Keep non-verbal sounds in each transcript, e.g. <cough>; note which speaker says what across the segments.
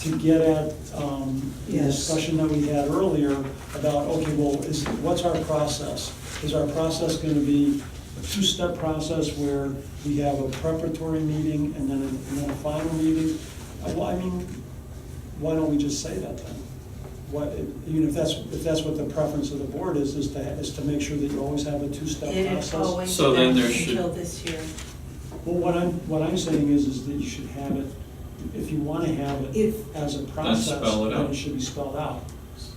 Speaker 1: to get at um, the
Speaker 2: Yes.
Speaker 1: discussion that we had earlier about, okay, well, is, what's our process? Is our process going to be a two-step process where we have a preparatory meeting and then, a- and then a final meeting? Uh, Well, I mean, why don't we just say that then? What, even if that's, if that's what the preference of the board is, is to, is to make sure that you always have a two-step
Speaker 2: It
Speaker 1: process?
Speaker 2: had always
Speaker 3: So then
Speaker 2: been
Speaker 3: there should-
Speaker 2: until this year.
Speaker 1: Well, what I'm, what I'm saying is, is that you should have it, if you want to have it
Speaker 2: If-
Speaker 1: as a process,
Speaker 3: spell it
Speaker 1: then
Speaker 3: out.
Speaker 1: it should be spelled out.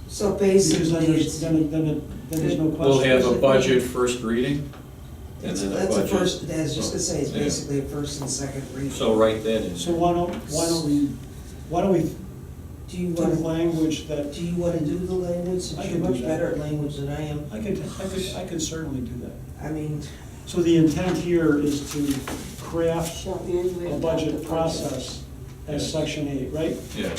Speaker 2: So
Speaker 1: Because then
Speaker 2: basically,
Speaker 1: there's,
Speaker 2: it's,
Speaker 1: then, it- then, it- then there's no
Speaker 2: We'll
Speaker 3: We'll
Speaker 1: question.
Speaker 3: have a budget first reading, and
Speaker 4: It's-
Speaker 3: then a
Speaker 4: That's a
Speaker 3: budget.
Speaker 4: first, I was just gonna say, it's
Speaker 3: Yeah.
Speaker 4: basically a first and second reading.
Speaker 3: So write that in.
Speaker 1: So why don't, why don't we, why don't we
Speaker 4: Do you
Speaker 1: do
Speaker 4: wanna,
Speaker 1: language that,
Speaker 4: do you wanna do the language,
Speaker 1: I
Speaker 4: since
Speaker 1: can
Speaker 4: you're
Speaker 1: do
Speaker 4: much
Speaker 1: that.
Speaker 4: better at language than I am?
Speaker 1: I could, I could, I could certainly do that.
Speaker 4: I mean,
Speaker 1: So the intent here is to craft
Speaker 5: Shall end with.
Speaker 1: a budget process as section eight, right?
Speaker 3: Yeah,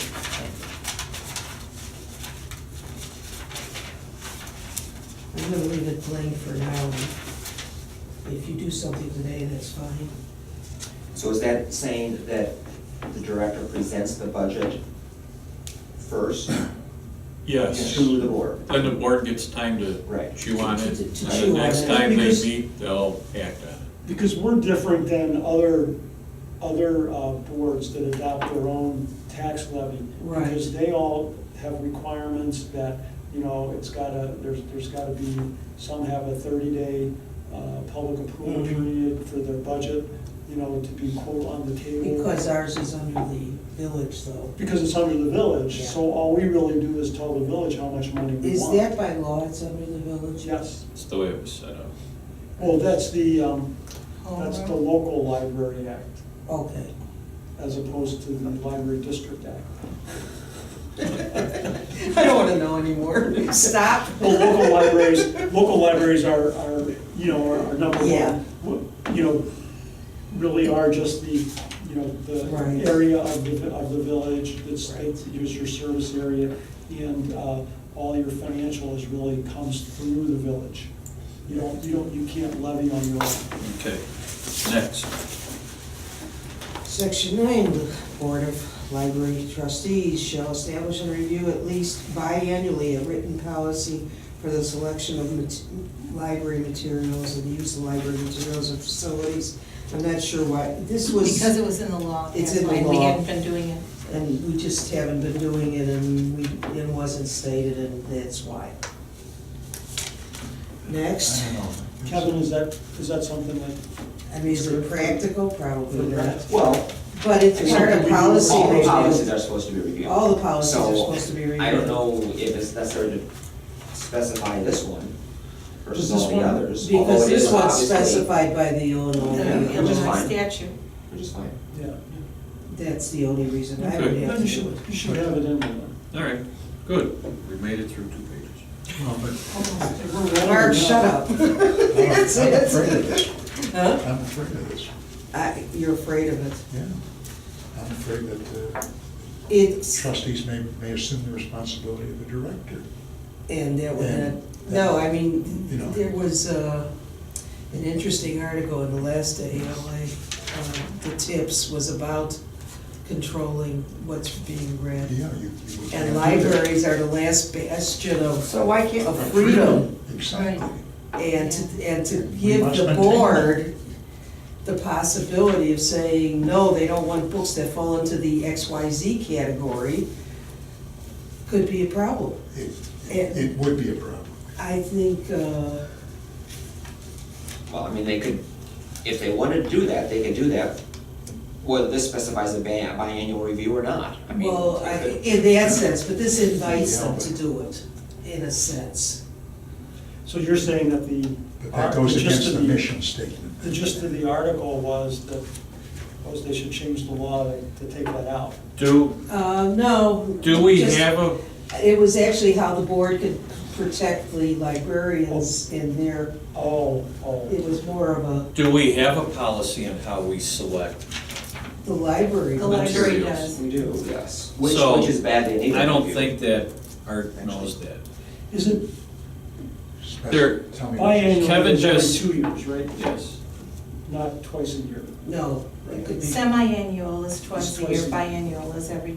Speaker 4: I'm gonna leave it plain for now. If you do something today, that's fine.
Speaker 6: So is that saying that the director presents the budget first
Speaker 3: yes.
Speaker 6: to the board?
Speaker 3: Then the board gets time to
Speaker 6: Right.
Speaker 3: chew on it,
Speaker 4: To- to-
Speaker 3: and
Speaker 4: to
Speaker 3: the
Speaker 4: chew on
Speaker 3: next
Speaker 4: it,
Speaker 3: time they
Speaker 4: because-
Speaker 3: meet, they'll act on it.
Speaker 1: Because we're different than other, other uh, boards that adopt their own tax levy.
Speaker 4: Right.
Speaker 1: Because they all have requirements that, you know, it's gotta, there's, there's gotta be, some have a thirty-day uh, public approval
Speaker 4: Mhm.
Speaker 1: period for their budget, you know, to be quote on the table.
Speaker 4: Because ours is under the village though.
Speaker 1: Because it's under the village,
Speaker 4: Yeah.
Speaker 1: so all we really do is tell the village how much money we
Speaker 4: Is
Speaker 1: want.
Speaker 4: that by law, it's under the village?
Speaker 1: Yes.
Speaker 3: It's the way it was set up.
Speaker 1: Well, that's the, um, that's the
Speaker 4: Homework?
Speaker 1: local library act,
Speaker 4: Okay.
Speaker 1: as opposed to the library district act.
Speaker 4: <laughs> I don't wanna know anymore. Stop.
Speaker 1: Well, local libraries, local libraries are, are, you know, are are number
Speaker 4: Yeah.
Speaker 1: one. W- You know, really are just the, you know,
Speaker 4: Right.
Speaker 1: the area of the, of the village, that's,
Speaker 4: Right.
Speaker 1: that is your service area. And, uh, all your financial is really comes through the village. You don't, you don't, you can't levy on your own.
Speaker 3: Okay, next.
Speaker 4: Section nine, the Board of Library Trustees shall establish and review at least biannually a written policy for the selection of mat- library materials and the use of library materials and facilities. I'm not sure why, this was,
Speaker 2: because it was in the law,
Speaker 4: It's
Speaker 2: that's
Speaker 4: in the
Speaker 2: why we
Speaker 4: law.
Speaker 2: hadn't been doing it.
Speaker 4: and we just haven't been doing it, and we, it wasn't stated, and that's why. Next,
Speaker 1: Kevin, is that, is that something that,
Speaker 4: I mean, is it practical? Probably not,
Speaker 6: Well,
Speaker 4: but
Speaker 6: I
Speaker 4: it's
Speaker 6: mean,
Speaker 4: part of policy.
Speaker 6: all the
Speaker 4: review.
Speaker 6: policies are supposed to be reviewed.
Speaker 4: All the policies are
Speaker 6: So,
Speaker 4: supposed to be reviewed.
Speaker 6: I don't know if it's necessary to specify this one versus
Speaker 1: Does this
Speaker 6: all the
Speaker 1: one-
Speaker 6: others. although
Speaker 4: Because
Speaker 6: it
Speaker 4: this
Speaker 6: is
Speaker 4: one's
Speaker 6: obviously-
Speaker 4: specified by the Illinois.
Speaker 2: The
Speaker 6: Yeah, yeah, which is
Speaker 2: Illinois
Speaker 6: fine.
Speaker 2: statute.
Speaker 6: Which is fine.
Speaker 1: yeah.
Speaker 4: That's the only reason I would
Speaker 3: Okay.
Speaker 1: Then
Speaker 4: have to
Speaker 1: you
Speaker 4: do
Speaker 1: should,
Speaker 4: it.
Speaker 1: you should have it in there.
Speaker 3: All right, good. We made it through two pages.
Speaker 7: Well,
Speaker 4: <laughs>
Speaker 7: but
Speaker 4: Mark, shut <laughs> up. That's
Speaker 7: I'm afraid
Speaker 4: it.
Speaker 7: of this.
Speaker 4: Huh?
Speaker 7: I'm afraid of this,
Speaker 4: I- You're afraid of it.
Speaker 7: yeah. I'm afraid that uh,
Speaker 4: It's,
Speaker 7: trustees may, may assume the responsibility of the director.
Speaker 4: and that would
Speaker 7: And-
Speaker 4: not, no, I mean,
Speaker 7: You know.
Speaker 4: there was uh, an interesting article in the last ALA, uh, the tips was about controlling what's being read.
Speaker 7: Yeah, you. you would-
Speaker 4: And libraries are the last bastion of,
Speaker 6: So why can't,
Speaker 4: of freedom.
Speaker 7: Exactly.
Speaker 4: And to, and to
Speaker 7: We
Speaker 4: give
Speaker 7: must
Speaker 4: the
Speaker 7: maintain that.
Speaker 4: board the possibility of saying, no, they don't want books that fall into the X, Y, Z category, could be a problem.
Speaker 7: It,
Speaker 4: And-
Speaker 7: it would be a problem.
Speaker 4: I think, uh,
Speaker 6: well, I mean, they could, if they wanted to do that, they could do that, whether this specifies a ban- biannual review or not. I mean,
Speaker 4: well, I-
Speaker 6: they could-
Speaker 4: in that sense, but this invites them to do it, in a sense.
Speaker 1: So you're saying that the. uh,
Speaker 7: But that goes
Speaker 1: the gist
Speaker 7: against
Speaker 1: of
Speaker 7: the mission statement.
Speaker 1: The gist of the article was that, was they should change the law to to take that out.
Speaker 3: Do,
Speaker 4: Uh, no.
Speaker 3: do we
Speaker 4: just-
Speaker 3: have a,
Speaker 4: It was actually how the board could protect the librarians in their,
Speaker 1: Oh, oh.
Speaker 4: it was more of a,
Speaker 3: do we have a policy on how we select?
Speaker 4: the library.
Speaker 2: The library
Speaker 3: Materials.
Speaker 2: does.
Speaker 6: We do, yes. Which,
Speaker 3: So,
Speaker 6: which is bad, they need to
Speaker 3: I don't
Speaker 6: review.
Speaker 3: think that Art knows that.
Speaker 1: Is it
Speaker 7: Spec-
Speaker 3: There-
Speaker 7: Tell me. what you-
Speaker 1: biannual,
Speaker 3: Kevin
Speaker 1: it's every
Speaker 3: just-
Speaker 1: two years, right?
Speaker 3: Yes.
Speaker 1: Not twice a year.
Speaker 4: No, it could be.
Speaker 2: Semi-annual is twice
Speaker 1: It's
Speaker 2: a
Speaker 1: twice
Speaker 2: year,
Speaker 1: a year.
Speaker 2: biannual is every